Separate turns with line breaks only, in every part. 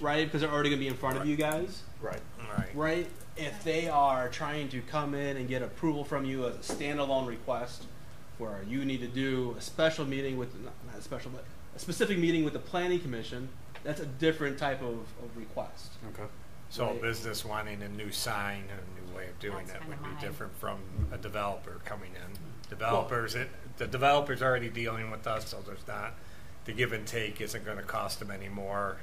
right? Because they're already going to be in front of you guys,
Right.
Right.
right? If they are trying to come in and get approval from you as a standalone request, where you need to do a special meeting with not, not a special, but a specific meeting with the planning commission, that's a different type of, of request.
Okay.
So
Right.
a business wanting a new sign and a new way of doing
That's
that would
kinda Mm.
be
mine.
different from a developer coming in. Developers, it, the developer's already dealing with us, so there's not, the give and take isn't gonna cost them anymore,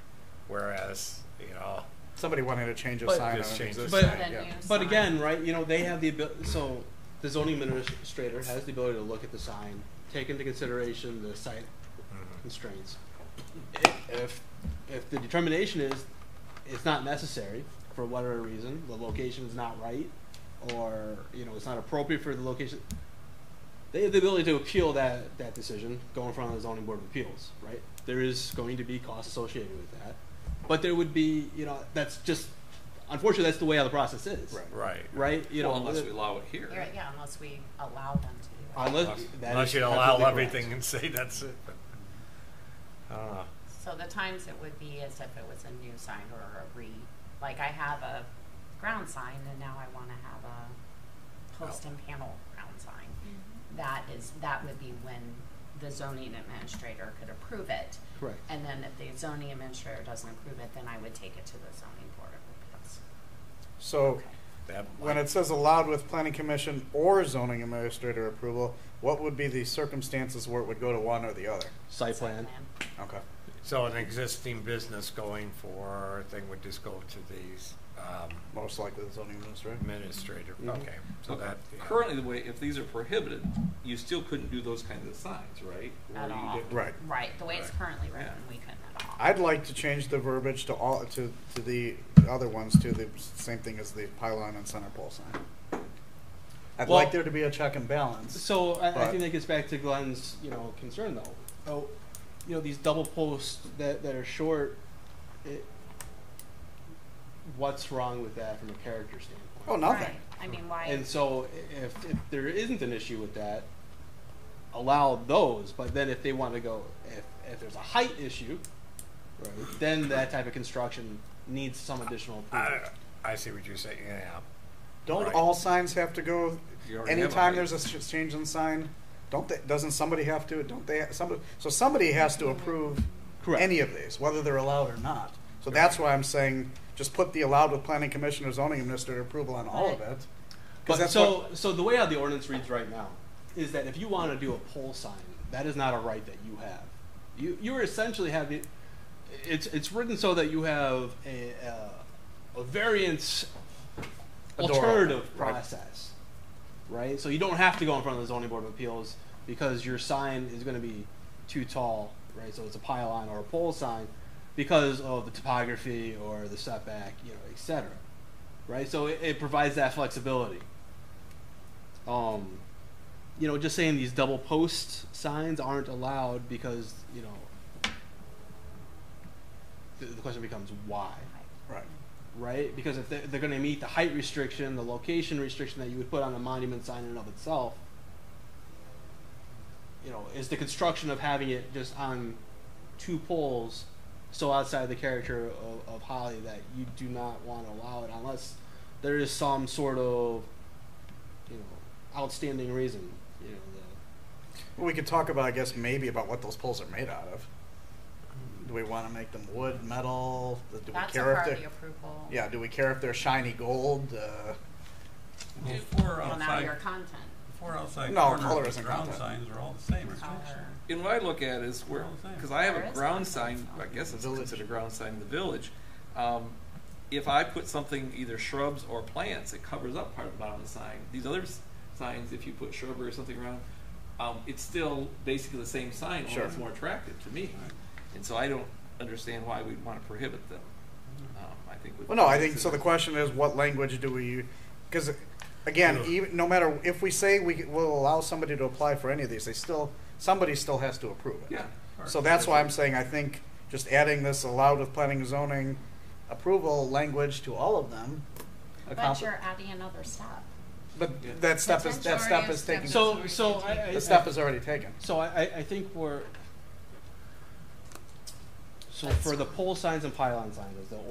whereas, you know,
Somebody wanting to change a
But-
sign on
Just
an
change the
existing.
But- sign,
Then
yeah.
you
But
sign.
again, right, you know, they have the ability, so the zoning administrator has the ability to look at the sign, take into consideration the site
mm,
constraints. I- If, if the determination is it's not necessary for whatever reason, the location is not right, or, you know, it's not appropriate for the location, they have the ability to appeal that, that decision, go in front of the zoning board of appeals, right? There is going to be costs associated with that, but there would be, you know, that's just, unfortunately, that's the way how the process is.
Right.
right.
Right? You know,
well, unless
the-
we allow it here.
You're right, Yeah, unless we allow them to do that.
unless, that
Unless
is
you allow
absolutely correct.
everything and say that's it, but, I don't know.
So the times it would be as if it was a new sign or a re, like I have a ground sign and now I wanna have a post and panel ground sign. That is, that would be when the zoning administrator could approve it.
Correct.
And then if the zoning administrator doesn't approve it, then I would take it to the zoning board of appeals.
So
That
when it says allowed with planning commission or zoning administrator approval, what would be the circumstances where it would go to one or the other?
Site
Site
plan.
Okay.
So an existing business going for, a thing would just go to these, um,
Most likely the zoning administrator.
administrator,
Mm-hmm.
Mhm.
okay, so
Okay.
that. yeah.
Currently, the way if these are prohibited, you still couldn't do those kinds of signs, right? Or
At
you
all.
did-
Right.
Right, the way it's
Right.
currently written,
Yeah.
we couldn't at all.
I'd like to change the verbiage to all to, to the other ones to the same thing as the pylon and center pole sign. I'd
Well-
like there to be a check and balance.
So I, I
But-
think that gets back to Glenn's, you know, concern though. Oh, you know, these double posts that, that are short, it, what's wrong with that from a character standpoint?
Oh, nothing.
Right. I mean, why?
And so i- if, if there isn't an issue with that, allow those, but then if they want to go, if, if there's a height issue, right, then that type of construction needs some additional approval.
I, I see what you're saying, yeah.
Don't
Right.
all signs have to go?
You already have a
Anytime
height.
there's a sh- change in sign, don't they, doesn't somebody have to? Don't they? Somebody. So somebody has to approve
Correct.
any of these, whether they're allowed or not. So that's why I'm saying just put the allowed with planning commission or zoning administrator approval on all of
Right.
it. 'Cause
But
that's
so,
what-
so the way how the ordinance reads right now is that if you want to do a pole sign, that is not a right that you have. You, you essentially have the, it's, it's written so that you have a, uh, a variance
A door
alternative
opener, right.
process, right? So you don't have to go in front of the zoning board of appeals because your sign is going to be too tall, right? So it's a pylon or a pole sign because of the topography or the setback, you know, et cetera, right? So it, it provides that flexibility. Um, you know, just saying these double post signs aren't allowed because you know, the, the question becomes why
right.
right? Because if they're, they're going to meet the height restriction, the location restriction that you would put on a monument sign in and of itself, you know, is the construction of having it just on two poles so outside the character of, of Holly that you do not want to allow it unless there is some sort of, you know, outstanding reason, you know, the,
Well, we could talk about, I guess, maybe about what those poles are made out of. Do we want to make them wood, metal? Do we
That's a
care if
part of
they?
the approval.
Yeah. Do we care if they're shiny gold? Uh,
If we're
Well, now your
outside,
content.
if we're outside
No,
oh corner,
color
the
isn't
ground
content.
signs are all the same. aren't they?
Our-
And what I look at is where, because I have
There
a
is one.
ground sign, I guess it's
Village.
considered a ground sign in the village. Um, If I put something, either shrubs or plants, it covers up part of the bottom of the sign. These other s- signs, if you put shrubbery or something around, um, it's still basically the same sign, only it's
Sure.
more attractive to me. And so I don't understand why we'd want to prohibit them. Um, I think. we-
well, no, I think so. The question is, what language do we? Because, again, even no matter if we say we will allow somebody to apply for any of these, they still somebody still has to approve it.
Yeah.
So that's why I'm saying I think just adding this allowed with planning and zoning approval language to all of them.
But
accompli-
you're adding another step.
but that step is that step
Potential
is taken.
areas,
so so I, I,
the step is already taken.
So I, I, I think we're. So
That's
for the pole signs and pylon signs, is the